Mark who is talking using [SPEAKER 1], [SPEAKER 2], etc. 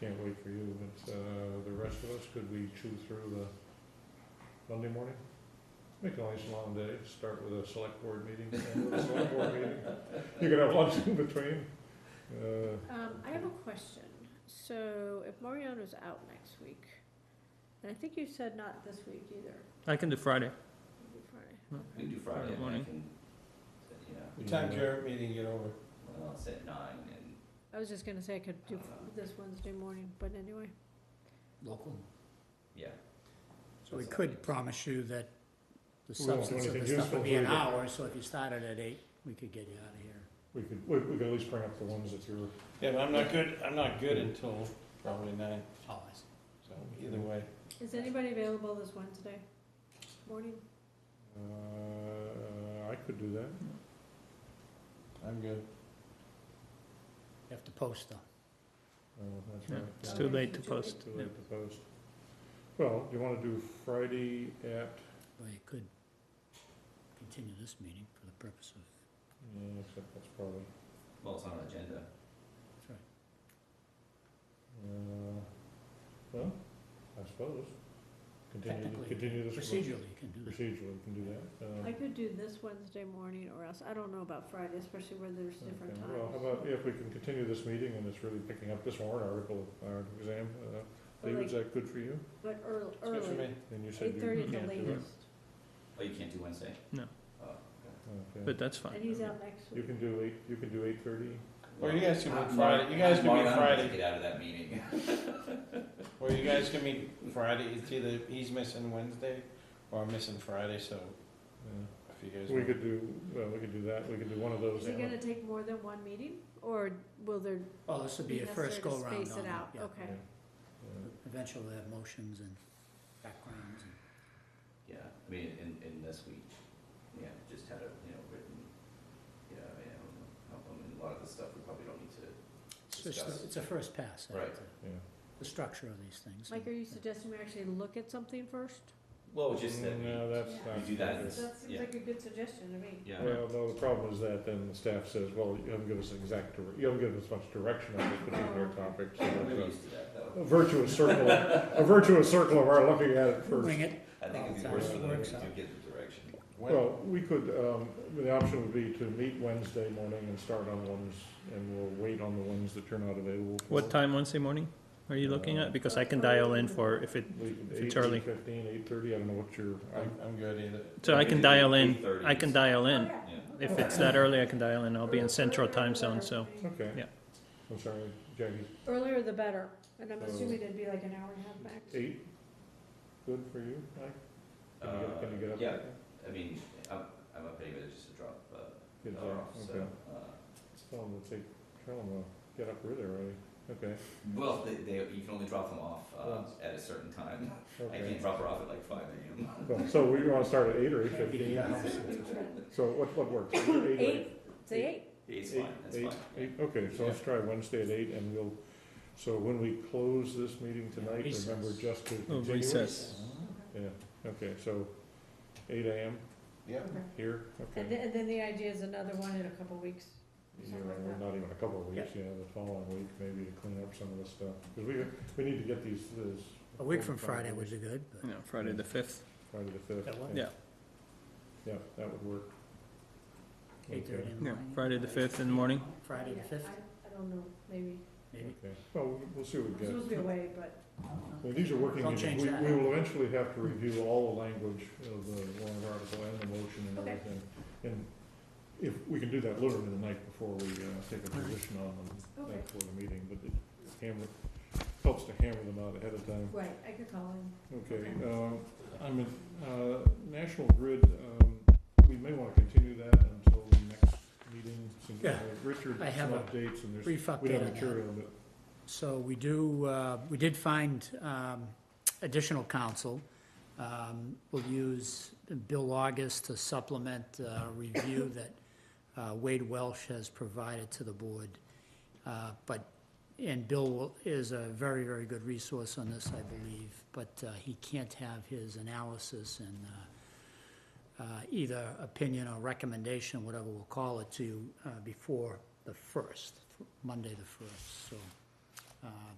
[SPEAKER 1] can't wait for you, but, uh, the rest of us, could we chew through the Monday morning? Make a nice long day, start with a select board meeting, end with a select board meeting. You can have lunch in between. Uh,
[SPEAKER 2] Um, I have a question. So if Mariano's out next week, and I think you said not this week either,
[SPEAKER 3] I can do Friday.
[SPEAKER 2] it'll be Friday.
[SPEAKER 3] Mm.
[SPEAKER 4] We can do Friday, I
[SPEAKER 3] Morning.
[SPEAKER 4] can, yeah,
[SPEAKER 1] you
[SPEAKER 5] What time's
[SPEAKER 1] know,
[SPEAKER 5] your meeting get over?
[SPEAKER 4] well, it's at nine and,
[SPEAKER 2] I was just gonna say I could do this Wednesday morning, but anyway.
[SPEAKER 6] local.
[SPEAKER 4] yeah.
[SPEAKER 6] So we could promise you that the
[SPEAKER 1] We won't do
[SPEAKER 6] substance of the
[SPEAKER 1] anything
[SPEAKER 6] stuff
[SPEAKER 1] useful
[SPEAKER 6] would be an
[SPEAKER 1] for you.
[SPEAKER 6] hour, so if you started at eight, we could get you out of here.
[SPEAKER 1] We could, we, we could at least bring up the ones that you're,
[SPEAKER 5] Yeah, but I'm not good, I'm not good until probably nine,
[SPEAKER 6] Oh, I see.
[SPEAKER 5] so either way.
[SPEAKER 2] Is anybody available this Wednesday morning?
[SPEAKER 1] uh, I could do that.
[SPEAKER 5] I'm good.
[SPEAKER 6] You have to post them.
[SPEAKER 1] Uh, that's
[SPEAKER 3] Yeah,
[SPEAKER 1] right.
[SPEAKER 3] It's
[SPEAKER 1] Yeah.
[SPEAKER 3] too
[SPEAKER 2] Okay,
[SPEAKER 3] late to
[SPEAKER 2] too late.
[SPEAKER 3] post.
[SPEAKER 1] Too
[SPEAKER 3] Yeah.
[SPEAKER 1] late to post. Well, you wanna do Friday at,
[SPEAKER 6] Well, you could continue this meeting for the purpose of,
[SPEAKER 1] yeah, except that's probably,
[SPEAKER 4] Well, it's on our agenda.
[SPEAKER 6] that's right.
[SPEAKER 1] uh, well, I suppose. Continue,
[SPEAKER 6] Technically,
[SPEAKER 1] continue this.
[SPEAKER 6] procedurally, you can do that.
[SPEAKER 1] Procedure, we can do that. Uh,
[SPEAKER 2] I could do this Wednesday morning or else, I don't know about Friday, especially where there's different
[SPEAKER 1] okay.
[SPEAKER 2] times.
[SPEAKER 1] Well, how about, if we can continue this meeting and it's really picking up this warrant article, our exam, uh,
[SPEAKER 2] But
[SPEAKER 1] David,
[SPEAKER 2] like-
[SPEAKER 1] is that good for you?
[SPEAKER 2] But early,
[SPEAKER 5] It's good for
[SPEAKER 2] early,
[SPEAKER 5] me.
[SPEAKER 1] And you said
[SPEAKER 2] eight
[SPEAKER 1] you
[SPEAKER 2] thirty at the
[SPEAKER 1] can't do it.
[SPEAKER 2] latest,
[SPEAKER 4] Oh, you can't do Wednesday?
[SPEAKER 3] No.
[SPEAKER 4] Oh, okay.
[SPEAKER 1] Okay.
[SPEAKER 3] But that's
[SPEAKER 2] and
[SPEAKER 3] fine.
[SPEAKER 2] he's out next
[SPEAKER 1] You
[SPEAKER 2] week.
[SPEAKER 1] can do eight, you can do eight thirty?
[SPEAKER 5] Or you guys can
[SPEAKER 4] Uh,
[SPEAKER 5] meet
[SPEAKER 4] Mark-
[SPEAKER 5] Friday, you guys can
[SPEAKER 4] Mark,
[SPEAKER 5] meet
[SPEAKER 4] I'm gonna
[SPEAKER 5] Friday,
[SPEAKER 4] Get out of that meeting.
[SPEAKER 5] or you guys can meet Friday, it's either he's missing Wednesday or I'm missing Friday, so if you guys.
[SPEAKER 1] We
[SPEAKER 5] want-
[SPEAKER 1] could do, well, we could do that, we could do one of those.
[SPEAKER 2] Is it
[SPEAKER 1] and-
[SPEAKER 2] gonna take more than one meeting or will there
[SPEAKER 6] Oh, this would
[SPEAKER 2] be
[SPEAKER 6] be a
[SPEAKER 2] necessary
[SPEAKER 6] first
[SPEAKER 2] to
[SPEAKER 6] go-round on
[SPEAKER 2] space it
[SPEAKER 6] them,
[SPEAKER 2] out?
[SPEAKER 6] yeah.
[SPEAKER 2] Okay.
[SPEAKER 1] Yeah.
[SPEAKER 6] Eventually, we'll have motions and backgrounds and.
[SPEAKER 4] Yeah, I mean, in, in this week, yeah, just had a, you know, written, yeah, I mean, I don't know, how come, and a lot of the stuff we probably don't need to,
[SPEAKER 6] It's just,
[SPEAKER 4] Discuss.
[SPEAKER 6] it's a first pass. at
[SPEAKER 4] Right.
[SPEAKER 6] the-
[SPEAKER 1] Yeah, yeah.
[SPEAKER 6] The structure of these things.
[SPEAKER 2] Mike, are you suggesting we actually look at something first?
[SPEAKER 5] Oh,
[SPEAKER 4] well, just that we,
[SPEAKER 5] Mm,
[SPEAKER 1] No, that's
[SPEAKER 2] Yeah.
[SPEAKER 1] not.
[SPEAKER 4] We do that
[SPEAKER 1] good.
[SPEAKER 4] Yes.
[SPEAKER 2] That seems
[SPEAKER 4] Yeah.
[SPEAKER 2] like a good suggestion to me.
[SPEAKER 4] yeah,
[SPEAKER 1] Well, no, the problem is that then the staff says, well, you haven't given us exact, dir- you haven't given us much direction on this particular
[SPEAKER 2] Oh.
[SPEAKER 1] topic, so
[SPEAKER 4] we're
[SPEAKER 1] it's
[SPEAKER 4] used to that,
[SPEAKER 1] a-
[SPEAKER 4] though.
[SPEAKER 1] a virtuous circle, a virtuous circle of our looking at it first.
[SPEAKER 6] Bring it,
[SPEAKER 4] I think it'd be
[SPEAKER 6] Well,
[SPEAKER 4] worse for
[SPEAKER 6] it
[SPEAKER 4] them if
[SPEAKER 6] works
[SPEAKER 4] we do
[SPEAKER 6] out.
[SPEAKER 4] get the direction.
[SPEAKER 5] When,
[SPEAKER 1] Well, we could, um, the option would be to meet Wednesday morning and start on ones, and we'll wait on the ones that turn out available. for-
[SPEAKER 3] What time Wednesday morning are you looking at? Because
[SPEAKER 2] Uh,
[SPEAKER 3] I can dial in for if it,
[SPEAKER 1] We could-
[SPEAKER 3] If it's
[SPEAKER 1] eight,
[SPEAKER 3] early.
[SPEAKER 1] 8:15, 8:30, I don't know what your, I,
[SPEAKER 5] I'm, I'm good either.
[SPEAKER 3] so I
[SPEAKER 4] Maybe
[SPEAKER 3] can dial in,
[SPEAKER 4] 8:30
[SPEAKER 3] I can dial in.
[SPEAKER 2] Oh, Yeah.
[SPEAKER 4] Yeah.
[SPEAKER 3] If it's that early, I can dial in. I'll be in central time zone, so.
[SPEAKER 1] okay.
[SPEAKER 3] Yeah.
[SPEAKER 1] I'm sorry, Jackie,
[SPEAKER 2] Earlier the better, and I'm
[SPEAKER 1] So-
[SPEAKER 2] assuming it'd be like an hour and a half max.
[SPEAKER 1] eight, good for you, Mike? Can you get, can you get
[SPEAKER 4] Uh,
[SPEAKER 1] up?
[SPEAKER 4] yeah,
[SPEAKER 1] there?
[SPEAKER 4] I mean, I'm, I'm up anyway, just to drop, uh,
[SPEAKER 1] Get
[SPEAKER 4] her off,
[SPEAKER 1] there,
[SPEAKER 4] so,
[SPEAKER 1] okay.
[SPEAKER 4] uh,
[SPEAKER 1] Tell them to take, tell them to get up really early, okay,
[SPEAKER 4] Well, they, they, you can only drop them off uh,
[SPEAKER 1] Once.
[SPEAKER 4] at a certain time. I
[SPEAKER 1] okay.
[SPEAKER 4] can't drop her off at like 5 a.m.
[SPEAKER 1] Well, So we wanna start at eight or eight fifteen,
[SPEAKER 6] Yeah.
[SPEAKER 1] so what, what works? Eight, or eight?
[SPEAKER 2] Eight, say eight.
[SPEAKER 4] It's
[SPEAKER 1] Eight,
[SPEAKER 4] fine. That's
[SPEAKER 1] eight,
[SPEAKER 4] fine.
[SPEAKER 1] eight, Okay, so let's try Wednesday at eight and we'll, so when we close this meeting tonight, remember
[SPEAKER 6] Recess.
[SPEAKER 1] just to
[SPEAKER 3] Oh,
[SPEAKER 1] continue it?
[SPEAKER 3] recess.
[SPEAKER 1] Yeah, okay, so eight AM
[SPEAKER 5] Yeah.
[SPEAKER 1] here,
[SPEAKER 2] And then,
[SPEAKER 1] okay.
[SPEAKER 2] and then the idea is another one in a couple weeks.
[SPEAKER 1] Yeah,
[SPEAKER 2] something like that.
[SPEAKER 1] Not even a couple of weeks, yeah, the following week maybe to clean up some of this stuff, cause we, we need to get these, this.
[SPEAKER 6] a week from Friday would be good, but.
[SPEAKER 3] You know, Friday the fifth.
[SPEAKER 1] Friday the fifth.
[SPEAKER 6] That one?
[SPEAKER 3] Yeah.
[SPEAKER 1] Yeah, that would work.
[SPEAKER 6] Eight thirty
[SPEAKER 1] Okay.
[SPEAKER 6] in the
[SPEAKER 3] Yeah,
[SPEAKER 6] morning.
[SPEAKER 3] Friday the 5th in the morning.
[SPEAKER 6] Friday the
[SPEAKER 2] Yeah,
[SPEAKER 6] fifth,
[SPEAKER 2] I- I don't know, maybe.
[SPEAKER 6] maybe.
[SPEAKER 1] Okay, well, we'll- we'll see what we
[SPEAKER 2] I'm
[SPEAKER 1] get.
[SPEAKER 2] supposed to be away, but
[SPEAKER 1] Well, these are working
[SPEAKER 6] Don't
[SPEAKER 1] meetings.
[SPEAKER 6] change
[SPEAKER 1] We,
[SPEAKER 6] that.
[SPEAKER 1] we will eventually have to review all the language of the warrant article and the motion and
[SPEAKER 2] Okay.
[SPEAKER 1] everything. And if, we can do that literally the night before we, uh, take a
[SPEAKER 6] All right.
[SPEAKER 1] position on them,
[SPEAKER 2] Okay.
[SPEAKER 1] uh, for the meeting, but it hammer, helps to hammer them out ahead of time.
[SPEAKER 2] Right, I could call in.
[SPEAKER 1] Okay,
[SPEAKER 2] Okay.
[SPEAKER 1] um, I'm, in- uh, National Grid, um, we may wanna continue that until the next meeting. Some-
[SPEAKER 6] Yeah.
[SPEAKER 1] uh, Richard,
[SPEAKER 6] I
[SPEAKER 1] some
[SPEAKER 6] have a
[SPEAKER 1] updates and there's,
[SPEAKER 6] Brief update
[SPEAKER 1] we have
[SPEAKER 6] on that.
[SPEAKER 1] material, but
[SPEAKER 6] So we do, uh, we did find um, additional counsel. Um, We'll use Bill August to supplement a review that uh, Wade Welsh has provided to the board. Uh, But, and Bill will- is a very, very good resource on this, I believe, but uh, he can't have his analysis and uh, uh, either opinion or recommendation, whatever we'll call it, to you uh, before the 1st, Monday the 1st. So uh,